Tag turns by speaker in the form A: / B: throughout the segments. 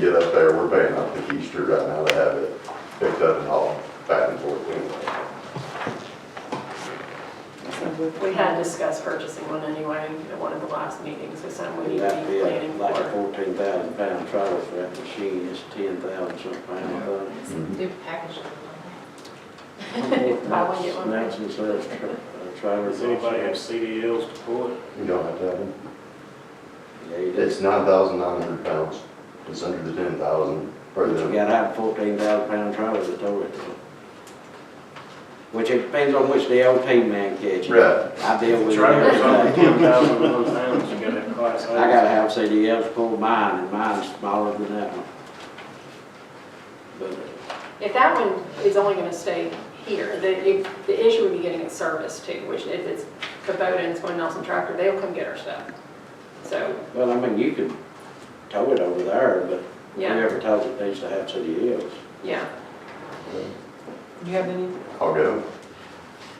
A: get up there, we're paying up the Keister right now to have it picked up and hauled back and forth anyway.
B: We had discussed purchasing one anyway at one of the last meetings, so something we need to be planning
C: Like a
B: for.
C: fourteen thousand pound trailer for that machine, it's ten thousand something pound.
D: It's a
A: Mm-hmm.
D: new package.
B: Buy one, get one.
C: Nancy sells tra- uh, trailers.
E: Does anybody have CDLs to pull it?
A: You don't have to have them.
C: Yeah, you do.
A: It's nine thousand nine hundred pounds. It's under the ten thousand, or
C: But you
A: the,
C: gotta have fourteen thousand pound trailer to tow it. Which it depends on which the old team man catches.
A: Right.
C: I deal with it
E: Trailers
C: every
E: over
C: day.
E: ten thousand of those pounds, you gotta have class A.
C: I gotta have CDLs pull mine, and mine's smaller than that one. But uh,
B: If that one is only gonna stay here, the, you- the issue would be getting it serviced too, which if it's Kubota and someone else in tractor, they'll come get our stuff. So,
C: Well, I mean, you could tow it over there, but
B: Yeah.
C: whoever tows it needs to have city hills.
B: yeah,
D: You have any,
A: I'll go.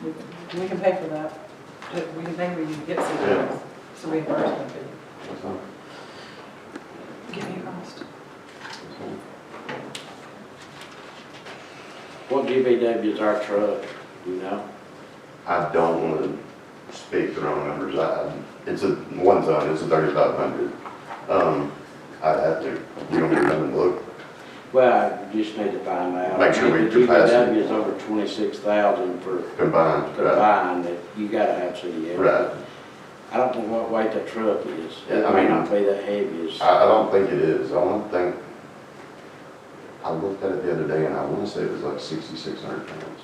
D: we can- we can pay for that. We can pay, we can get some, of
A: Yeah.
D: those. it's a reimbursement fee.
A: That's fine.
D: Give me a cost.
A: That's fine.
C: What GBW is our truck, you know?
A: I don't wanna speak the wrong numbers. I, it's a, one ton, it's a thirty-five hundred. Um, I'd have to, you don't even come and look.
C: Well, I just need to find out.
A: Make sure we
C: The
A: surpass it.
C: GBW is over twenty-six thousand for
A: Combined, right?
C: combined, that you gotta have city hills.
A: Right.
C: I don't know what weight that truck is. It
A: Yeah, I
C: may
A: mean-
C: not be that heavy as,
A: I, I don't think it is. I don't think, I looked at it the other day and I wanna say it was like sixty-six hundred pounds.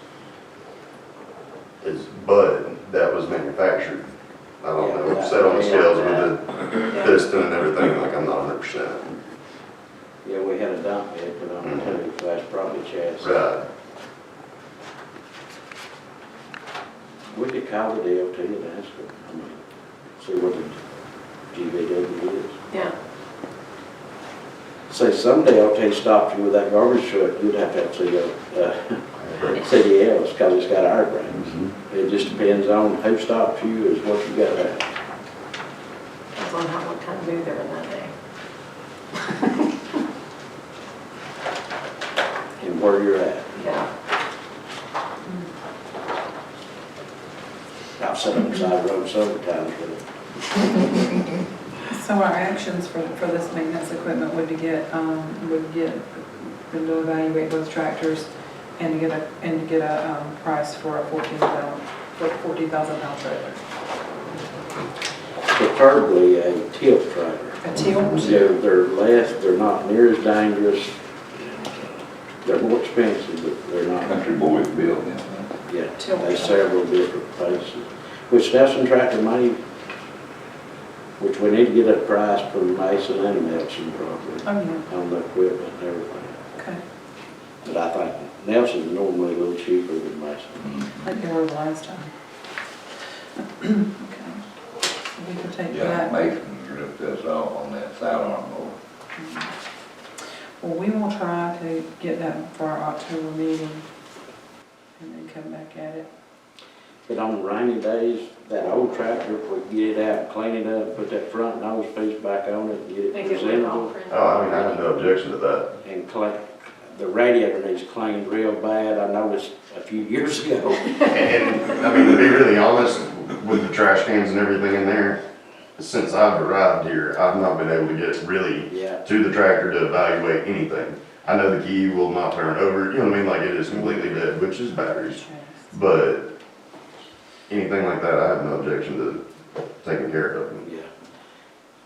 A: It's, but that was manufactured. I don't know, it's set on the scales with the
B: yeah.
A: piston and everything, like I'm not hundred percent.
C: yeah, we had a dump bed put on it too, so that's probably chassis.
A: Mm-hmm. Right,
C: We could call the DOT and ask them, I mean, see what the GBW is.
B: yeah.
C: Say some DOT stopped you with that garbage truck, you'd have to have CO, uh, CDLs, because it's got our brands. It just depends on who stopped you is what you got there.
B: That's on how, what kind of move they're in that day.
C: and where you're at.
B: Yeah,
C: I've sat on the side of the road several times with it.
F: So our actions for, for this maintenance equipment would to get, um, would get, them to evaluate those tractors and to get a, and to get a, um, price for a fourteen thousand, for fourteen thousand pound trailer.
C: Preferably a tilt trailer.
F: A tilt,
C: They're, they're less, they're not near as dangerous. They're more expensive, but they're not,
G: Country boy built, yeah.
C: yeah,
F: Tilt.
C: there's several different places. Which Nelson Tractor money, which we need to get a price from Mason and Nelson probably.
F: oh yeah,
C: on the equipment and everything.
F: okay,
C: But I think Nelson's normally a little cheaper than Mason.
F: like they were the last time. Okay, so we could take
G: Yeah,
F: that.
G: Mason ripped us off on that sidearm mower.
F: Well, we will try to get that for our October meeting and then come back at it.
C: But on rainy days, that old tractor, if we get it out, clean it up, put that front nose piece back on it, and get it
B: make it look all
C: presentable.
B: pretty.
A: oh, I mean, I have no objection to that.
C: And clean, the radiator needs cleaned real bad, I noticed a few years ago.
A: And, and, I mean, to be really honest, with the trash cans and everything in there, since I've arrived here, I've not been able to get really
C: Yeah,
A: to the tractor to evaluate anything. I know the key will not turn over, you know what I mean, like it is completely dead, which is batteries, but anything like that, I have no objection to taking care of them.
C: yeah.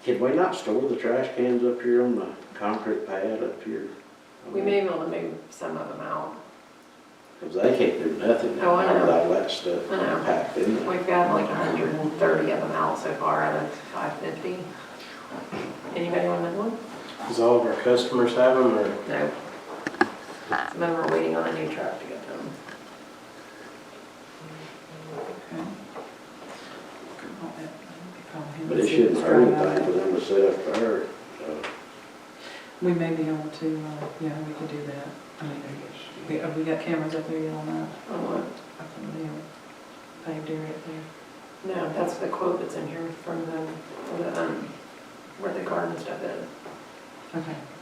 C: Can we not store the trash cans up here on the concrete pad up here?
B: We may be able to move some of them out.
C: Because they can't do nothing
B: Oh, I know.
C: with all that stuff
B: I know.
C: packed in there.
B: We've got like hundred and thirty of them out so far out of five fifty. Anybody want another one?
E: Does all of our customers have them, or?
B: No. Some of them are waiting on a new truck to get them.
F: Okay.
C: But it shouldn't hurt anything for them to set up to her.
F: We may be able to, uh, yeah, we could do that. I mean, we, have we got cameras up there yet on that,
B: I want,
F: up in the paved area up there?
B: no, that's the quote that's in here from the, from the, um, where the garden stuff is.
F: Okay.